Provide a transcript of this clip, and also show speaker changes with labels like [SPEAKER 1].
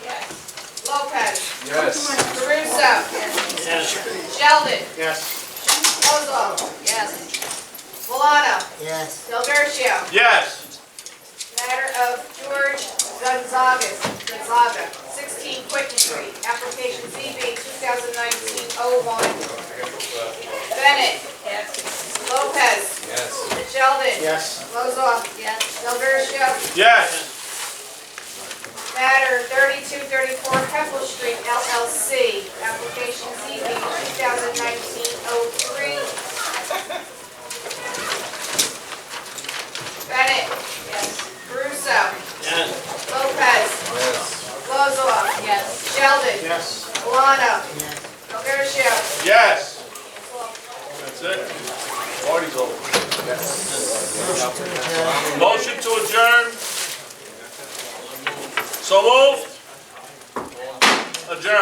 [SPEAKER 1] Yes.
[SPEAKER 2] Caruso.
[SPEAKER 3] Yes.
[SPEAKER 2] Sheldon.
[SPEAKER 1] Yes.
[SPEAKER 2] Ozol. Yes. Valado.
[SPEAKER 4] Yes.
[SPEAKER 2] Del Garcia.
[SPEAKER 1] Yes.
[SPEAKER 2] Matter of George Gonzagas, Gonzaga, 16 Quicken Street, application ZB 2019-01. Bennett. Lopez.
[SPEAKER 1] Yes.
[SPEAKER 2] Sheldon.
[SPEAKER 1] Yes.
[SPEAKER 2] Lozoff. Yes. Del Garcia.
[SPEAKER 1] Yes.
[SPEAKER 2] Matter 3234 Keppel Street LLC, application ZB 2019-03. Bennett. Yes. Caruso.
[SPEAKER 3] Yes.
[SPEAKER 2] Lopez.
[SPEAKER 1] Yes.
[SPEAKER 2] Lozoff. Yes. Sheldon.
[SPEAKER 1] Yes.
[SPEAKER 2] Milano.
[SPEAKER 4] Yes.
[SPEAKER 2] Del Garcia.
[SPEAKER 1] Yes. That's it. Party's over.
[SPEAKER 3] Motion to adjourn. So moved. Adjourn.